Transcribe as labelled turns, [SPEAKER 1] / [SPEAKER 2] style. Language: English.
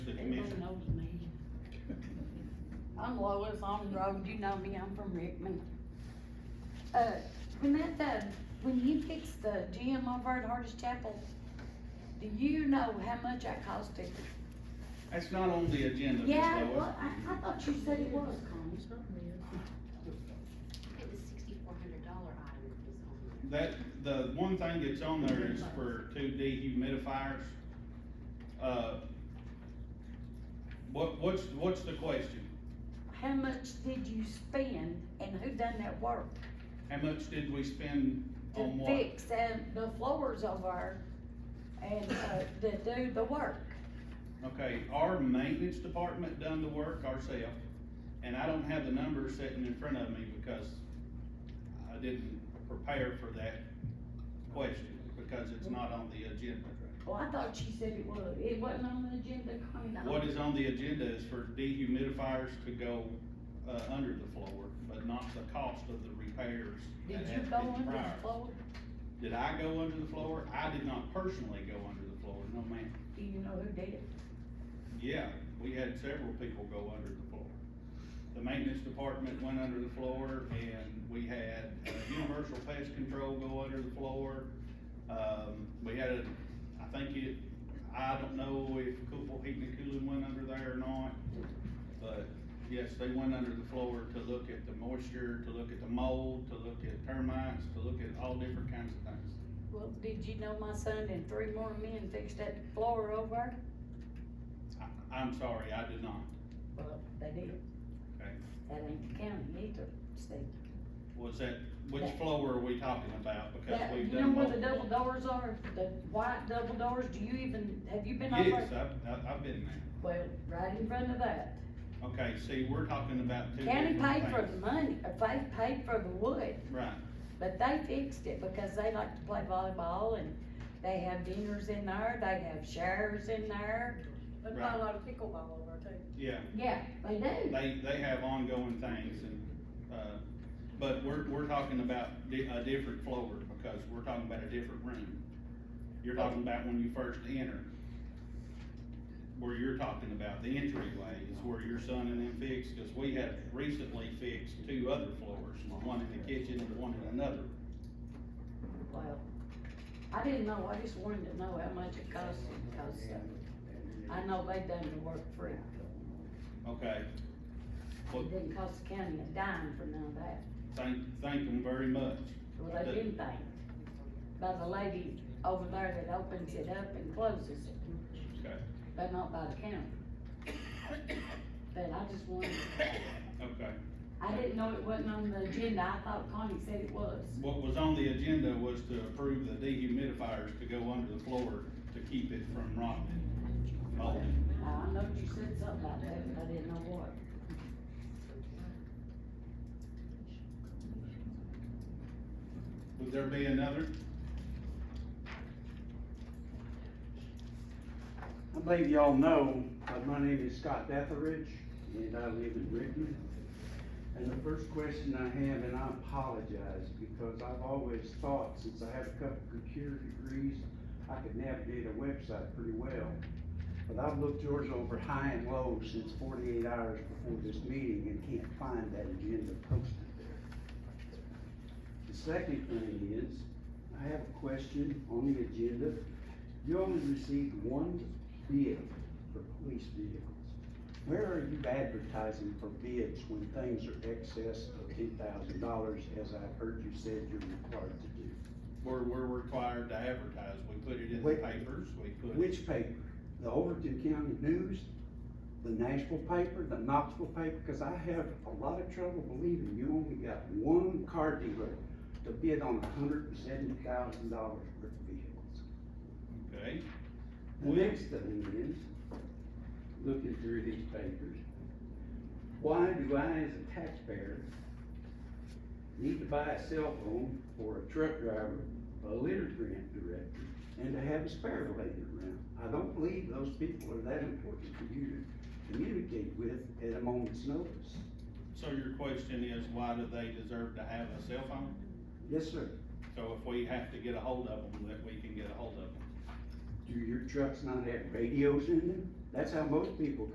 [SPEAKER 1] I'm Lois on the road, you know me, I'm from Rickman. Uh, when that, uh, when you fixed the gym over at Hardest Chapel, do you know how much that cost it?
[SPEAKER 2] That's not on the agenda, Ms.
[SPEAKER 1] Yeah,
[SPEAKER 2] Lois.
[SPEAKER 1] well, I, I thought you said it was, Connie.
[SPEAKER 3] It was sixty-four hundred dollar item that was on there.
[SPEAKER 2] That, the one thing that's on there is for two dehumidifiers. Uh, what, what's, what's the question?
[SPEAKER 1] How much did you spend and who done that work?
[SPEAKER 2] How much did we spend
[SPEAKER 1] To
[SPEAKER 2] on what?
[SPEAKER 1] fix and the floors over and, uh, to do the work?
[SPEAKER 2] Okay, our maintenance department done the work ourselves, and I don't have the numbers sitting in front of me because I didn't prepare for that question, because it's not on the agenda.
[SPEAKER 1] Well, I thought you said it was, it wasn't on the agenda, Connie.
[SPEAKER 2] What is on the agenda is for dehumidifiers to go, uh, under the floor, but not the cost of the repairs.
[SPEAKER 1] Did
[SPEAKER 2] that
[SPEAKER 1] you
[SPEAKER 2] have to
[SPEAKER 1] go
[SPEAKER 2] be
[SPEAKER 1] under
[SPEAKER 2] prior.
[SPEAKER 1] the floor?
[SPEAKER 2] Did I go under the floor? I did not personally go under the floor, no ma'am.
[SPEAKER 1] Do you know who did it?
[SPEAKER 2] Yeah, we had several people go under the floor. The maintenance department went under the floor and we had uh, universal pest control go under the floor. Um, we had a, I think it, I don't know if Cooper Heating and Cooling went under there or not. But yes, they went under the floor to look at the moisture, to look at the mold, to look at termites, to look at all different kinds of things.
[SPEAKER 1] Well, did you know my son and three more men fixed that floor over?
[SPEAKER 2] I, I'm sorry, I did not.
[SPEAKER 1] Well, they did.
[SPEAKER 2] Okay.
[SPEAKER 1] That ain't the county either, Steve.
[SPEAKER 2] Was that, which
[SPEAKER 1] That-
[SPEAKER 2] floor are we talking about? Because
[SPEAKER 1] That-
[SPEAKER 2] we've
[SPEAKER 1] You know
[SPEAKER 2] done
[SPEAKER 1] where the
[SPEAKER 2] multiple.
[SPEAKER 1] double doors are, the white double doors, do you even, have you been over?
[SPEAKER 2] Yes, I've, I've, I've been there.
[SPEAKER 1] Well, right in front of that.
[SPEAKER 2] Okay, see, we're talking about two
[SPEAKER 1] County
[SPEAKER 2] different
[SPEAKER 1] paid for the
[SPEAKER 2] things.
[SPEAKER 1] money, or they paid for the wood,
[SPEAKER 2] Right,
[SPEAKER 1] but they fixed it because they like to play volleyball and they have dinners in there, they have showers in there.
[SPEAKER 4] They play a lot of pickleball over there too.
[SPEAKER 2] yeah,
[SPEAKER 1] Yeah, they do.
[SPEAKER 2] they, they have ongoing things and, uh, but we're, we're talking about di- a different floor because we're talking about a different room. You're talking about when you first enter. Where you're talking about, the entryway is where your son and them fixed, cause we have recently fixed two other floors, one in the kitchen and one in another.
[SPEAKER 1] Well, I didn't know, I just wanted to know how much it cost, because uh, I know they done the work free.
[SPEAKER 2] Okay, Well-
[SPEAKER 1] It didn't cost the county a dime for none of that,
[SPEAKER 2] thank, thank them very much.
[SPEAKER 1] well, they didn't think, by the lady over there that opens it up and closes it,
[SPEAKER 2] Okay,
[SPEAKER 1] but not by the county. But I just wanted,
[SPEAKER 2] okay.
[SPEAKER 1] I didn't know it wasn't on the agenda, I thought Connie said it was.
[SPEAKER 2] What was on the agenda was to approve the dehumidifiers to go under the floor to keep it from rotting. Oh, Molding.
[SPEAKER 1] I know you said something about that, but I didn't know what.
[SPEAKER 2] Would there be another?
[SPEAKER 5] I believe y'all know, but my name is Scott Etheridge, and I live in Rickman. And the first question I have, and I apologize, because I've always thought, since I have a couple computer degrees, I could navigate a website pretty well. But I've looked yours over high and low since forty-eight hours before this meeting and can't find that agenda posted there. The second thing is, I have a question on the agenda. You only received one bid for police vehicles. Where are you advertising for bids when things are excess of ten thousand dollars, as I've heard you said you're required to do?
[SPEAKER 2] We're, we're required to advertise. We put it in the
[SPEAKER 5] Wait.
[SPEAKER 2] papers, we put.
[SPEAKER 5] Which paper? The Overton County News, the Nashville paper, the Knoxville paper? Because I have a lot of trouble believing you only got one car dealer to bid on hundred and seventy thousand dollars worth of vehicles.
[SPEAKER 2] Okay,
[SPEAKER 5] The next thing is, looking through these papers, why do I as a taxpayer need to buy a cell phone for a truck driver, a litter grant director, and to have a spare later around? I don't believe those people are that important for you to communicate with at a moment's notice.
[SPEAKER 2] so your question is, why do they deserve to have a cell phone?
[SPEAKER 5] Yes, sir.
[SPEAKER 2] So if we have to get a hold of them, that we can get a hold of them.
[SPEAKER 5] Do your trucks not have radios in them? That's how most people